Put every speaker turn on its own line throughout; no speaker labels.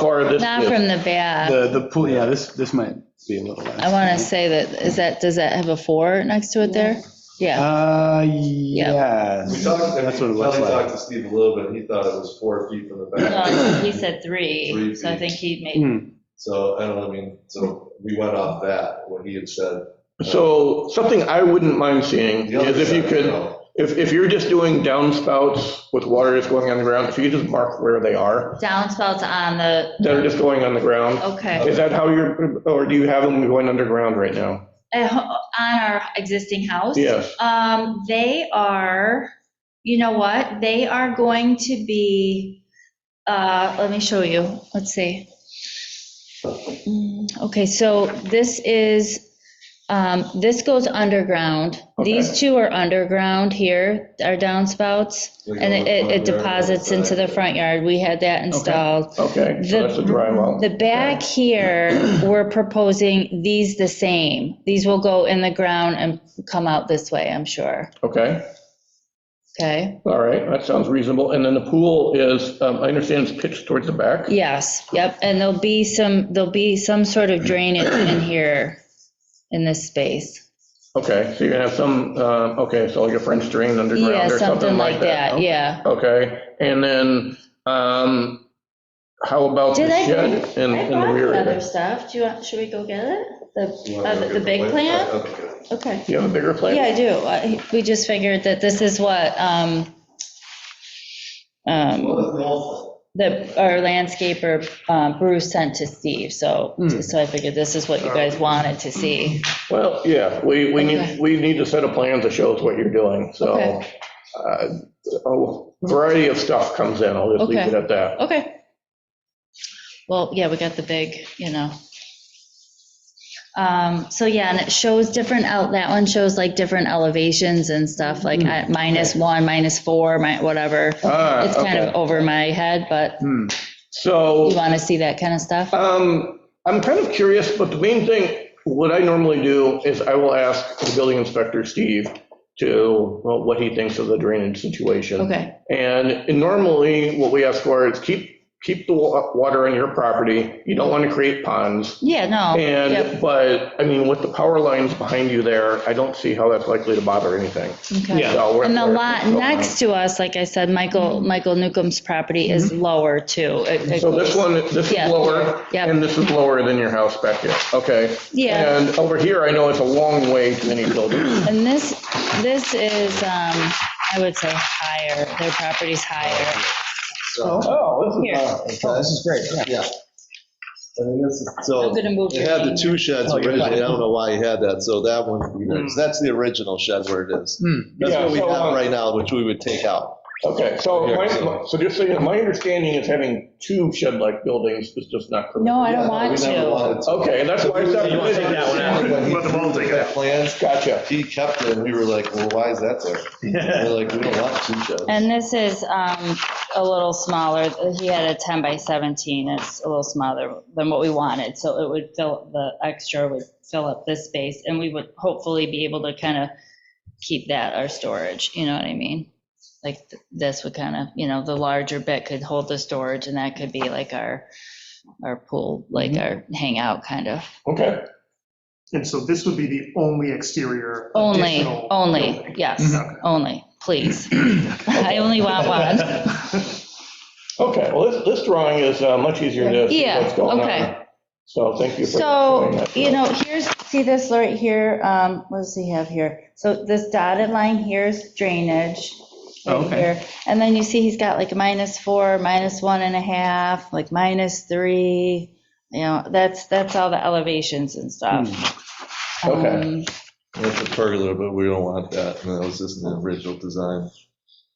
far this
Not
is.
from the back.
The, the pool, yeah, this, this might be a little
I
less.
want to say that, is that, does that have a four next to it there? Yeah,
Uh, yeah.
We talked, I mean,
That's what it looks
Kelly
like.
talked to Steve a little bit, he thought it was four feet from the
No,
back.
he said three,
Three
so I
feet.
think he made,
Hmm,
So, I don't, know, I mean, so we went off that, what he had said.
So something I wouldn't mind seeing
The other
is if you
side,
could,
know,
if, if you're just doing downspouts with water just going on the ground, if you could just mark where they are,
downspouts on the,
that are just going on the ground.
okay.
Is that how you're, or do you have them going underground right now?
At ho- On our existing house?
Yes.
Um, they are, you know what, they are going to be, uh, let me show you, let's see. Mm, Okay, so this is, um, this goes underground. These two are underground here, our downspouts,
they go
and it,
in
it
the front
it
yard or
deposits
the
into the
back.
front yard. We had that installed.
Okay, so that's a
The,
drywall.
the back here, we're proposing these the same. These will go in the ground and come out this way, I'm sure.
Okay,
Okay?
all right, that sounds reasonable. And then the pool is, um, I understand it's pitched towards the back.
Yes, yep, and there'll be some, there'll be some sort of drainage in here, in this space.
Okay, so you're gonna have some, uh, okay, so like a French drain
Yeah,
underground or
something like that,
okay.
yeah.
Okay, and then, um, how about the
Did I-
shed in, in the rear? area?
stuff. Do you want, should we go get it?
You wanna
The,
look at white- Okay, good.
Okay.
Do you have a bigger plan?
Yeah, I do. I- We just figured that this is what, um, um,
Well, the
Oh,
whole
that our landscaper um, Bruce sent to Steve, so,
Hmm.
so I figured this is what you guys wanted to see.
Well, yeah, we, we
Okay.
need, we need a set of plans that shows what you're doing, so.
Okay.
uh, A variety of stuff comes in, I'll just leave it
Okay.
at that.
Okay. Well, yeah, we got the big, you know. Um, So yeah, and it shows different, out. that one shows like different elevations and stuff, like at minus one, minus four, mi- whatever.
Hmm. Ah,
It's kind
okay.
of over my head, but
hmm.
you
So,
want to see that kind of stuff?
um, I'm kind of curious, but the main thing, what I normally do is I will ask the building inspector, Steve, to, well, what he thinks of the drainage situation.
Okay,
And normally, what we ask for is keep, keep the wa- water on your property. You don't want to create ponds.
yeah, no.
And,
yep,
but, I mean, with the power lines behind you there, I don't see how that's likely to bother anything.
okay.
So we're-
And the
we're-
lot
so-
next to us, like I said, Michael, Michael Newcomb's property is lower too. It- it
Mm-hmm. So this
goes-
one, this
Yeah.
is lower,
Yeah.
and this is lower than your house back here, okay?
Yeah.
And over here, I know it's a long way to any building.
And this, this is, um, I would say higher, their property's higher.
So,
Oh,
Here.
Oh, This is great, yeah.
I mean, this is-
I'm
so
gonna move
it had the
your-
two sheds
Oh, you're
originally, I
fine.
don't know why he had that, so that one, that's the original shed where it is.
Hmm.
That's
Yeah,
what we
so,
have
um,
right now, which we would take out.
Okay, so,
Here,
my-
so-
so just so you know, my understanding is having two shed-like buildings is just not permitted.
No, I
Yeah,
don't
no,
want
we never
to.
wanted to.
Okay, that's why I said.
You wanna take
that one out?
When he
Let them all
drew
take
the
that.
Plans,
Gotcha.
he kept it, and we were like, well, why is that there? And They're like, we don't want two sheds.
And this is, um, a little smaller. He had a 10 by 17. It's a little smaller than what we wanted. So it would fill, the extra would fill up this space and we would hopefully be able to kind of keep that our storage, you know what I mean? Like th- this would kind of, you know, the larger bit could hold the storage and that could be like our, our pool, like
Mm-hmm.
our hangout kind of.
Okay,
And so this would be the only exterior.
Only, Oh,
additional
only,
building.
yes, only, please. I only want one.
okay, well, this, this drawing is uh, much easier to see
Yeah,
what's going
okay.
on. So thank you for. showing
So,
that to
you
us.
know, here's, see this right here, um, what does he have here? So this dotted line here is drainage. right
Oh,
Okay.
here. And then you see he's got like minus four, minus one and a half, like minus three, you know, that's, that's all the elevations and stuff.
Hmm.
Okay.
Um,
That's a pergola, but we don't want that, and that was just in the original design.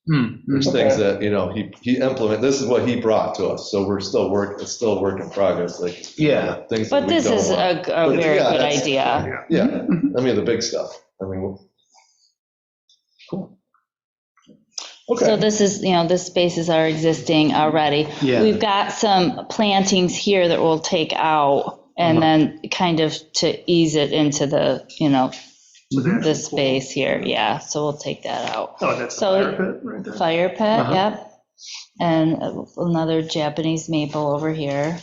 Hmm, hmm.
There's things that, you know, he, he implement, this is what he brought to us, so we're still work, it's still work in progress, like.
Yeah.
Things that
But
we
this
don't
is
want.
a, a
But
very
yeah,
good
that's-
idea.
Yeah, I mean, the big stuff, I mean,
So
Okay,
this is, you know, this spaces are existing already.
Yeah.
We've got some plantings here that we'll take out and then kind of to ease it into the, you know, the space here, yeah, so we'll take that out.
Oh, that's the
So-
fire pit right there.
Fire pit,
Uh-huh.
yep. And another Japanese maple over here.